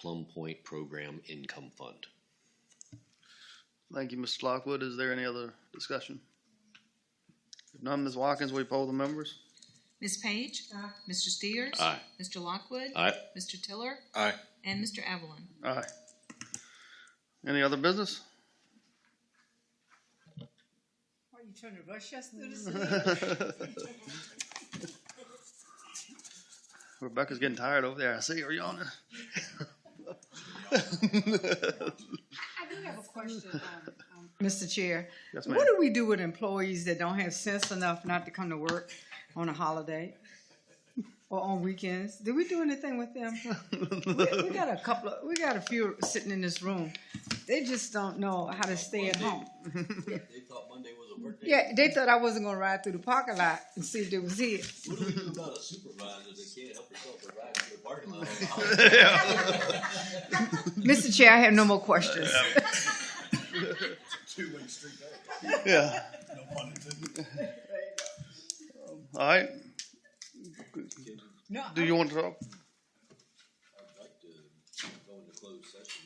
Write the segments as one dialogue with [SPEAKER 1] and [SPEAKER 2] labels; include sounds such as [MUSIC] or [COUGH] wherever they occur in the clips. [SPEAKER 1] Plum Point Program Income Fund.
[SPEAKER 2] Thank you, Mr. Lockwood. Is there any other discussion? If none, Ms. Watkins, will you poll the members?
[SPEAKER 3] Ms. Page? Mr. Steers?
[SPEAKER 1] Aye.
[SPEAKER 3] Mr. Lockwood?
[SPEAKER 1] Aye.
[SPEAKER 3] Mr. Tiller?
[SPEAKER 4] Aye.
[SPEAKER 3] And Mr. Evelyn?
[SPEAKER 2] Aye. Any other business?
[SPEAKER 5] Are you trying to rush us through this? meeting?
[SPEAKER 2] [LAUGHS] Rebecca's getting tired over there. I see her yawning.
[SPEAKER 5] I do have a question, um, um, Mr. Chair.
[SPEAKER 2] Yes, ma'am.
[SPEAKER 5] What do we do with employees that don't have sense enough not to come to work on a holiday? Or on weekends? Do we do anything with them? We we got a couple of, we got a few sitting in this room. They just don't know how to stay at home.
[SPEAKER 6] They thought Monday was a work day.
[SPEAKER 5] Yeah, they thought I wasn't gonna ride through the parking lot and see if they was here.
[SPEAKER 6] What do we do about a supervisor that can't help herself but ride into the parking lot?
[SPEAKER 5] Mr. Chair, I have no more questions.
[SPEAKER 6] Two-way street back.
[SPEAKER 2] Yeah. All right.
[SPEAKER 5] No,
[SPEAKER 2] Do you want to talk?
[SPEAKER 6] I'd like to go into closed session.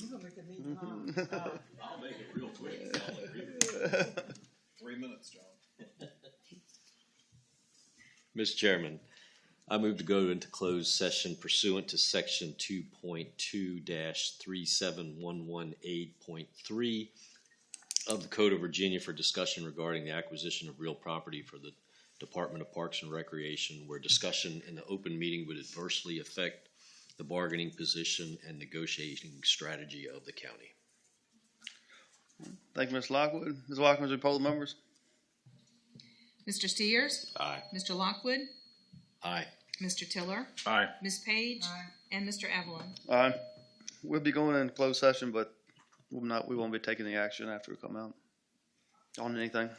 [SPEAKER 5] you gonna make a meeting, um,
[SPEAKER 6] I'll make it real quick. I'll agree.
[SPEAKER 4] Three minutes, John.
[SPEAKER 1] Mr. Chairman, I move to go into closed session pursuant to section two point two three seven one one eight point three of the Code of Virginia for discussion regarding the acquisition of real property for the Department of Parks and Recreation, where discussion in the open meeting would adversely affect the bargaining position and negotiating strategy of the county.
[SPEAKER 2] Thank you, Ms. Lockwood. Ms. Watkins, will you poll the members?
[SPEAKER 3] Mr. Steers?
[SPEAKER 1] Aye.
[SPEAKER 3] Mr. Lockwood?
[SPEAKER 1] Aye.
[SPEAKER 3] Mr. Tiller?
[SPEAKER 4] Aye.
[SPEAKER 3] Ms. Page? And Mr. Evelyn?
[SPEAKER 2] Aye. Uh, We'll be going in closed session, but we'll not, we won't be taking the action after we come out on anything.